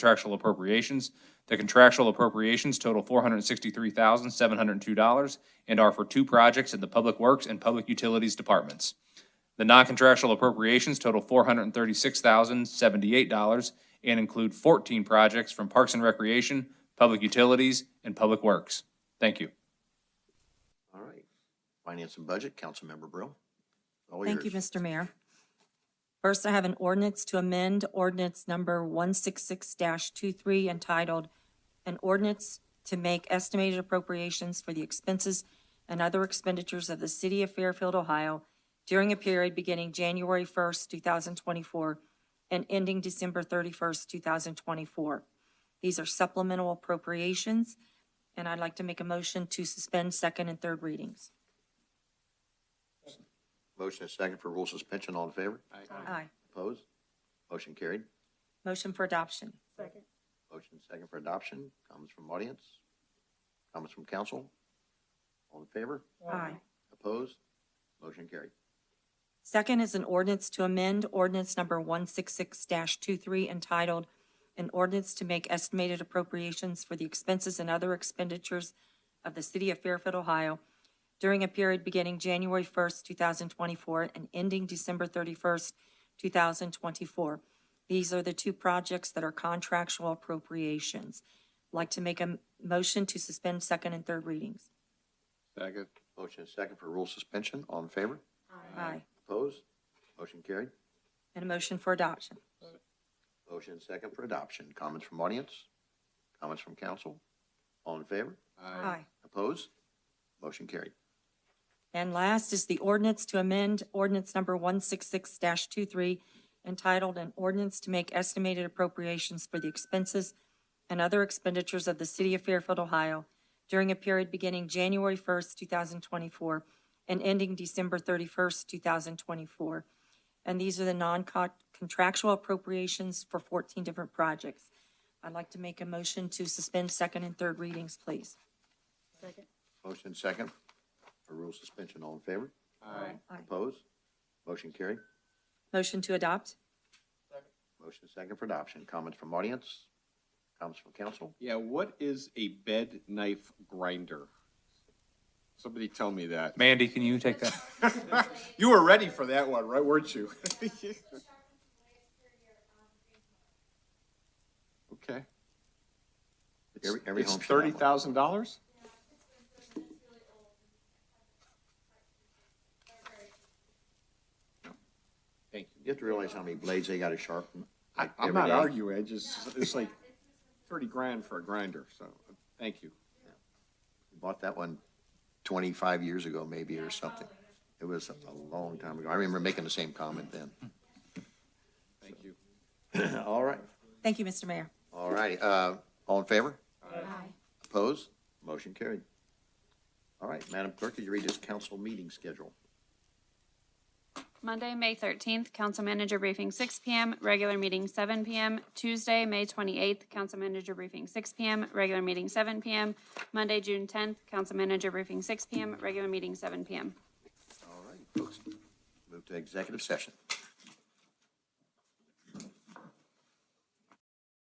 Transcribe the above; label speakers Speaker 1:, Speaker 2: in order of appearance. Speaker 1: contractual appropriations. The contractual appropriations total four hundred and sixty-three thousand, seven hundred and two dollars and are for two projects in the Public Works and Public Utilities Departments. The non-contractual appropriations total four hundred and thirty-six thousand, seventy-eight dollars and include fourteen projects from Parks and Recreation, Public Utilities, and Public Works. Thank you.
Speaker 2: All right. Finance and Budget, Councilmember Brill. All
Speaker 3: Thank you,
Speaker 2: yours.
Speaker 3: Mr. Mayor. First, I have an ordinance to amend ordinance number 166-23 entitled, "An Ordinance to Make Estimated Appropriations for the Expenses and Other Expenditures of the City of Fairfield, Ohio during a period beginning January 1st, 2024 and ending December 31st, 2024." These are supplemental appropriations, and I'd like to make a motion to suspend second and third readings.
Speaker 2: Motion is second for rule suspension. All in favor?
Speaker 3: Aye.
Speaker 2: Opposed? Motion carried.
Speaker 3: Motion for adoption.
Speaker 2: Motion is second for adoption. Comments from audience? Comments from council? All in favor?
Speaker 3: Aye.
Speaker 2: Opposed? Motion carried.
Speaker 3: Second is an ordinance to amend ordinance number 166-23 entitled, "An Ordinance to Make Estimated Appropriations for the Expenses and Other Expenditures of the City of Fairfield, Ohio during a period beginning January 1st, 2024 and ending December 31st, 2024." These are the two projects that are contractual appropriations. Like to make a m- motion to suspend second and third readings.
Speaker 2: Second. Motion is second for rule suspension. All in favor?
Speaker 3: Aye.
Speaker 2: Opposed? Motion carried.
Speaker 3: And a motion for adoption.
Speaker 2: Motion is second for adoption. Comments from audience? Comments from council? All in favor?
Speaker 3: Aye.
Speaker 2: Opposed? Motion carried.
Speaker 3: And last is the ordinance to amend ordinance number 166-23 entitled An Ordinance to Make Estimated Appropriations for the Expenses and Other Expenditures of the City of Fairfield, Ohio during a period beginning January 1st, 2024 and ending December 31st, 2024. And these are the non-contractual appropriations for 14 different projects. I'd like to make a motion to suspend second and third readings, please.
Speaker 2: Motion second for rule suspension. All in favor?
Speaker 3: Aye.
Speaker 2: Opposed? Motion carried.
Speaker 3: Motion to adopt?
Speaker 2: Motion second for adoption. Comments from audience? Comments from council?
Speaker 4: Yeah, what is a bed knife grinder? Somebody tell me that.
Speaker 1: Mandy, can you take that?
Speaker 4: You were ready for that one, right, weren't you? Okay.
Speaker 2: Every-
Speaker 4: It's-
Speaker 2: every home
Speaker 4: It's
Speaker 2: should have one.
Speaker 4: thirty thousand dollars?
Speaker 2: You have to realize how many blades they gotta sharpen.
Speaker 4: I,
Speaker 2: like,
Speaker 4: I'm
Speaker 2: every
Speaker 4: not
Speaker 2: day.
Speaker 4: arguing, I just, it's like thirty grand for a grinder, so, thank you.
Speaker 2: Bought that one twenty-five years ago maybe or something. It was a long time ago. I remember making the same comment then.
Speaker 4: Thank you.
Speaker 2: All right.
Speaker 3: Thank you, Mr. Mayor.
Speaker 2: All righty, uh, all in favor? Aye. Opposed? Motion carried. All right, Madam Clerk, could you read this council meeting schedule?
Speaker 5: Monday, May thirteenth, council manager briefing six P M, regular meeting seven P M. Tuesday, May twenty-eighth, council manager briefing six P M, regular meeting seven P M. Monday, June tenth, council manager briefing six P M, regular meeting seven P M.
Speaker 2: All right, folks, move to executive session.